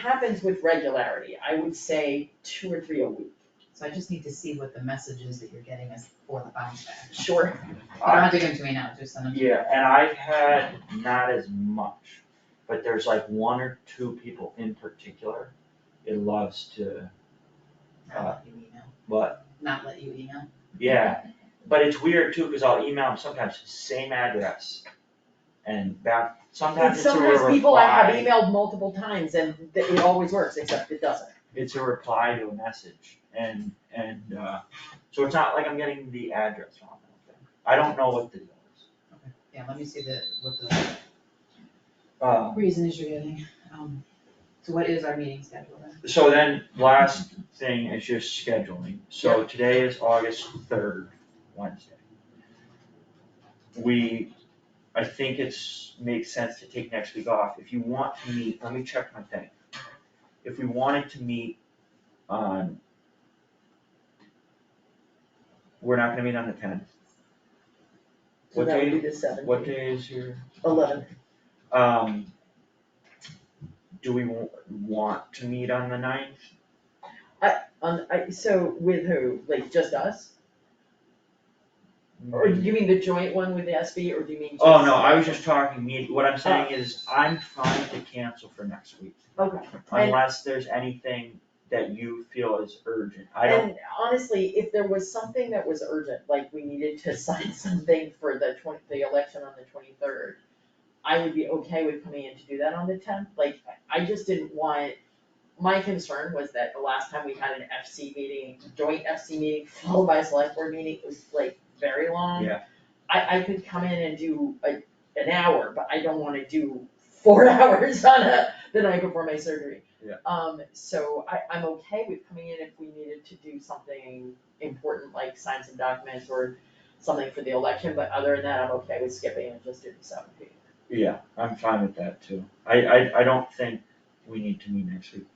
happens with regularity, I would say two or three a week, So I just need to see what the message is that you're getting us for the bounce back. sure, You don't have to give them to me now, just send them. to me. Yeah, and I've had not as much, but there's like one or two people in particular, it loves to, Not let you email, but, not let you email. yeah. But it's weird too, cause I'll email them sometimes, same address, and back, and sometimes it's a reply. sometimes people I have emailed multiple times and th- it always works, except it doesn't. It's a reply to a message, and, and, uh, so it's not like I'm getting the address wrong, I don't think. I don't know what the deal is. Okay. Yeah, let me see the, what the Um, reason is you're getting. Um, So what is our meeting schedule then? So then, last thing is just scheduling, so today is August third, Wednesday. We, I think it's, makes sense to take next week off, if you want to meet, let me check my thing. If we wanted to meet on. We're not gonna meet on the tenth, So What that would day- be the seventh. what day is your, Eleven, um. Do we wa- want to meet on the ninth? on, Um, I, so with who, like just us, or do you mean the joint one with the SB, or do you mean just? Oh, no, I was just talking, me, what I'm saying is, I'm fine to cancel for next week, Okay. unless there's anything that you feel is urgent, I don't, And honestly, if there was something that was urgent, like we needed to sign something for the twenty, the election on the twenty-third, I would be okay with coming in to do that on the tenth, like, I just didn't want, my concern was that the last time we had an FC meeting, joint FC meeting, followed by a select board meeting, it was like very long. Yeah. I, I could come in and do a, an hour, but I don't wanna do four hours on a, the night before my surgery. Um, so I, I'm okay with coming in if we needed to do something important, like sign some documents or something for the election, but other than that, I'm okay with skipping and just doing seven P. yeah, I'm fine with that too. I, I, I don't think we need to meet next week.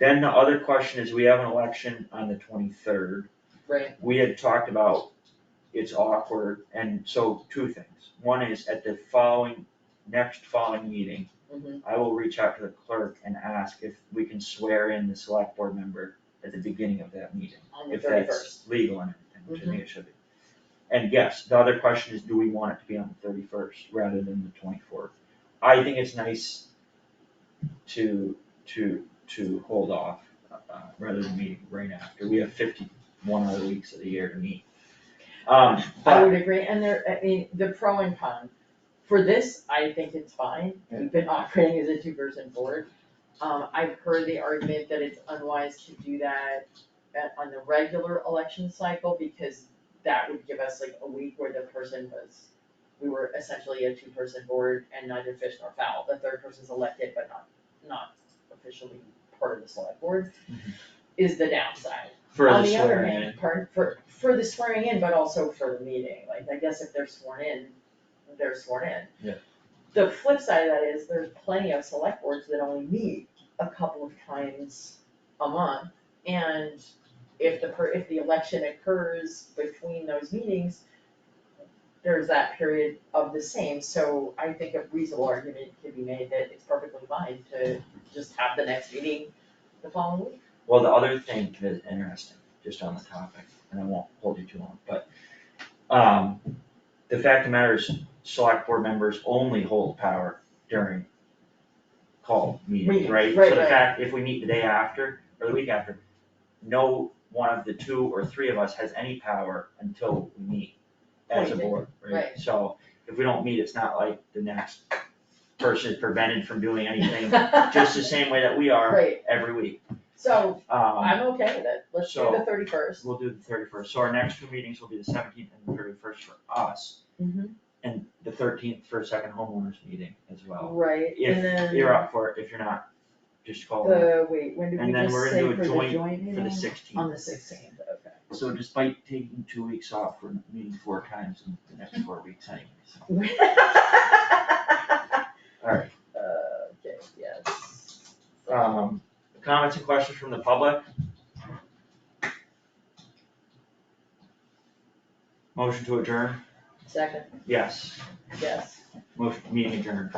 Then the other question is, we have an election on the twenty-third, Right. we had talked about it's awkward, and so two things. One is at the following, next following meeting, Mhm. I will reach out to the clerk and ask if we can swear in the select board member at the beginning of that meeting. On the Mm-hmm. If thirty that's first. legal and everything, to me it should be. And yes, the other question is, do we want it to be on the thirty-first rather than the twenty-fourth? I think it's nice to, to, to hold off, uh, rather than meeting right after, we have fifty-one other weeks of the year to meet. Um, I but, would agree, and there, I mean, the pro and con, for this, I think it's fine, we've been operating as a two-person board. Um, I've heard the argument that it's unwise to do that at, on the regular election cycle, because that would give us like a week where the person was, we were essentially a two-person board and neither fish nor fowl, the third person's elected but not, not officially part of the select board, is the downside. for the On the other swearing in, hand, pardon, for, for the swearing in, but also for the meeting, like, I guess if they're sworn in, they're sworn in. Yeah. The flip side of that is there's plenty of select boards that only meet a couple of times a month. And if the, per- if the election occurs between those meetings, there's that period of the same, so I think a reasonable argument could be made that it's perfectly fine to just have the next meeting the following week. Well, the other thing that is interesting, just on the topic, and I won't hold you too long, but, um, the fact of the matter is, select board members only hold power during call meetings, Meetings, right? right, So the right. fact, if we meet the day after, or the week after, no one of the two or three of us has any power until we meet as a Right, board, right? right. So, if we don't meet, it's not like the next person is prevented from doing anything, just the same way that we are Right, every week, so um. I'm okay with it, let's do the so- thirty first. We'll do the thirty-first, so our next two meetings will be the seventeenth and the thirty-first for us, and the thirteenth for a second homeowners meeting as well. Right, If and then You're up for it, if you're not, just call in the, wait, when did we And then just we're say gonna do for a the joint joint meeting? for the sixteenth. On the sixteenth, okay. So despite taking two weeks off, we're meeting four times in the next four weeks anyway, so, alright. Uh, Okay, yes. Um, comments and questions from the public? Motion to adjourn, Second, yes, yes. motion, meeting adjourned.